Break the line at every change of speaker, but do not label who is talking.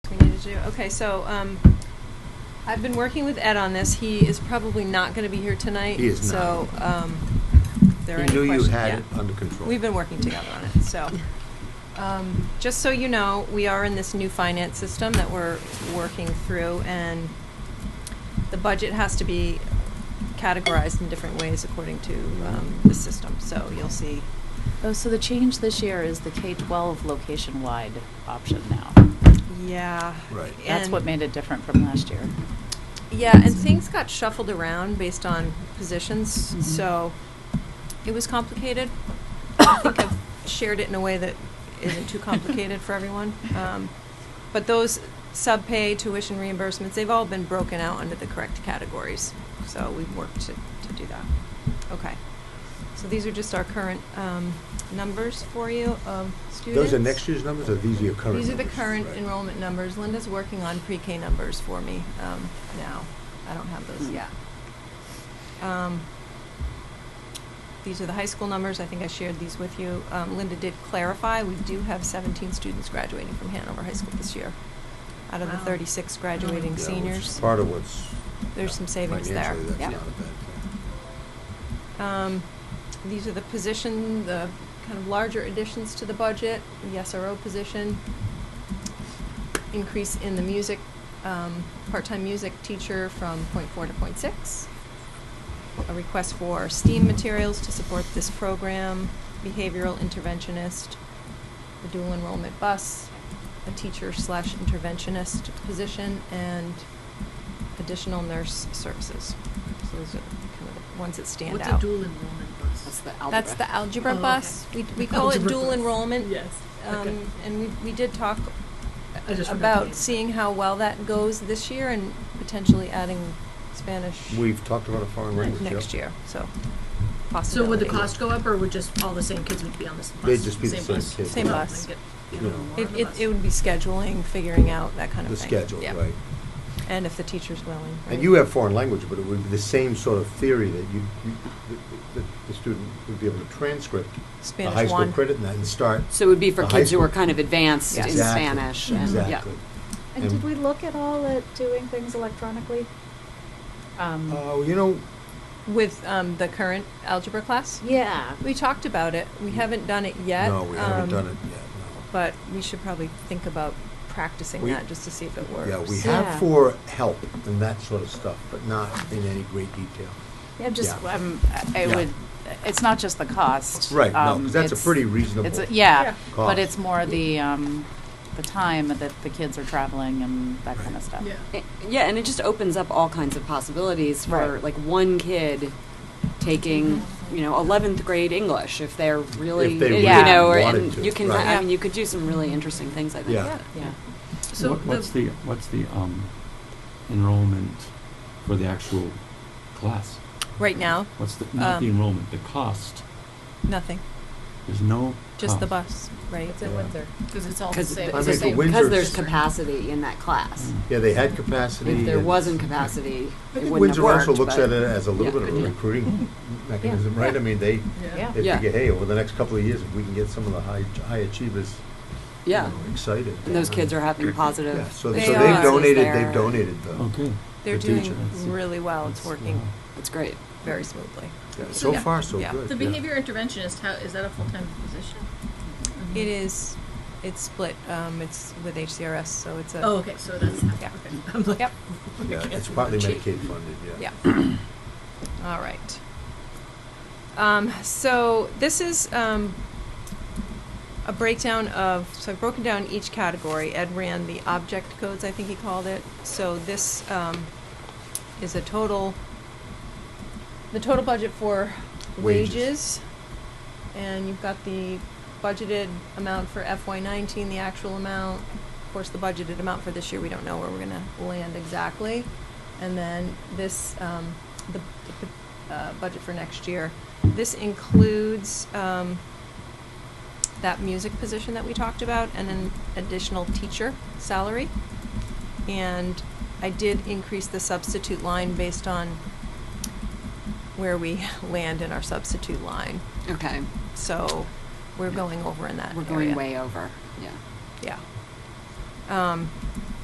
Did you? Okay, so um, I've been working with Ed on this. He is probably not going to be here tonight.
He is
So
not.
um, there are
He
any
knew you
questions-
had it
yeah.
under control.
We've been working together on it, so. um, Just so you know, we are in this new finance system that we're working through, and the budget has to be categorized in different ways according to um, the system. So you'll see
Oh, so the change this year is the K-12 location-wide option now.
Yeah.
Right.
That's
and-
what made it different from last year.
Yeah, and things got shuffled around based on positions,
Mhm.
so it was complicated. I think I've shared it in a way that isn't too complicated for everyone. Um, but those subpay tuition reimbursements, they've all been broken out under the correct categories. So we've worked to, to do that. Okay. So these are just our current um, numbers for you of students.
Those are next year's numbers, or these are your current numbers?
These are the current
Right.
enrollment numbers. Linda's working on pre-K numbers for me um, now. I don't have those
Mm.
yet. Um, These are the high school numbers. I think I shared these with you. Um, Linda did clarify, we do have 17 students graduating from Hanover High School this year, out of the
Wow.
36
Yeah,
graduating
which is
seniors.
Part of what's.
There's some savings there.
Financially,
Yeah.
that's not a bad thing.
Um, These are the position, the kind of larger additions to the budget, the SRO position, increase in the music, um, part-time music teacher from point four to point six, a request for STEAM materials to support this program, behavioral interventionist, the dual enrollment bus, a teacher slash interventionist position, and additional nurse services. So those are kind of the ones that stand out.
What's a dual enrollment bus?
That's the
That's the algebra
Oh, okay.
bus. We, we call
Oh,
it
Algebra
dual
bus.
enrollment.
Yes. Okay.
Um, and we, we did talk
I just forgot the name.
about seeing how well that goes this year and potentially adding Spanish
We've talked about a foreign language, yeah.
next year, so
So
possibility.
would the cost go up, or would just all the same kids would be on this bus?
They'd just be the same
bus?
kids.
Same
Oh,
bus.
they get-
Yeah.
get more
It,
on the
it,
bus.
it would be scheduling, figuring out that kind of
The
thing.
schedule,
Yeah.
right.
And if the teacher's willing.
And
right.
you have foreign language, but it would be the same sort of theory that you, you, the- the, the student would be able to transcript the
Spanish
high school
one.
credit and then start.
So it would be for
the high
kids who
school.
are kind of advanced in
Exactly,
Spanish. and- yeah.
Exactly.
And did we look at all at doing things electronically?
Um,
Oh, you know,
With, um, the current algebra class?
Yeah.
We talked about it. We haven't done it yet.
Mm. no, we haven't
um,
done it yet,
But we should probably think about practicing
We-
that just to see if it
no.
works.
Yeah, we
Yeah.
have for help and that sort of stuff, but not in any great detail.
Yeah, just,
Yeah.
um, I
Yeah.
would, it's not just the cost.
Right, no,
um,
'cause that's a
it's-
pretty reasonable
it's a-
Yeah.
Yeah, but
cost.
it's more the, um, the time that the kids are traveling and that kind
Right.
of stuff.
Yeah.
I- Eh, Yeah, and it just opens up all kinds of possibilities for
Right.
like one kid taking, you know, 11th grade English if they're really,
If they
you
really
know, or-
wanted
and
to,
you can,
right.
I mean, you could do some really interesting things, I think.
Yeah.
Yeah.
So
What- What's the, what's the um, enrollment for the actual class?
Right now,
What's the, not the
Um,
enrollment, the cost?
nothing.
There's no
Just the
cost.
bus, right?
at Yeah. Windsor.
Because it's all the
Because
same.
I
it's
mean,
the
for
same-
Windsor-
there's capacity in that class.
Mm.
Yeah, they had capacity.
If there
and-
wasn't capacity,
I
it
think
wouldn't have
Windsor also
worked,
looks
but-
at it as a little
Yeah.
bit of a recruiting mechanism, right? I mean, they,
Yeah.
they
Yeah.
figure, hey, over the next couple of years, if we can get some of the high, high achievers, you
Yeah.
know, excited. uh,
And those kids are having positive.
Yeah, so, so
They
they've
are.
donated,
There.
they've donated the.
Okay.
They're
The
doing
teacher.
really well. It's
That's-
working
wow.
That's great.
very smoothly.
Yeah,
So
So
yeah.
far, so
Yeah.
good.
The
yeah.
behavior interventionist, how, is that a full-time position?
Mm-hmm. It is. It's split. Um, it's with HCRS, so it's a.
Oh, okay, so that's, okay.
Yeah.
I'm like-
Yep.
Yeah, it's partly Medicaid funded, yeah.
Yeah. All right. Um, so this is um, a breakdown of. So I've broken down each category. Ed ran the object codes, I think he called it. So this um, is a total. The total budget for
Wages.
wages and you've got the budgeted amount for FY nineteen, the actual amount. Of course, the budgeted amount for this year, we don't know where we're gonna land exactly. And then this, um, the, the, uh, budget for next year. This includes, um, that music position that we talked about and an additional teacher salary. And I did increase the substitute line based on where we land in our substitute line.
Okay.
So we're going over in that
We're going
area.
way over. Yeah.
Yeah. Um,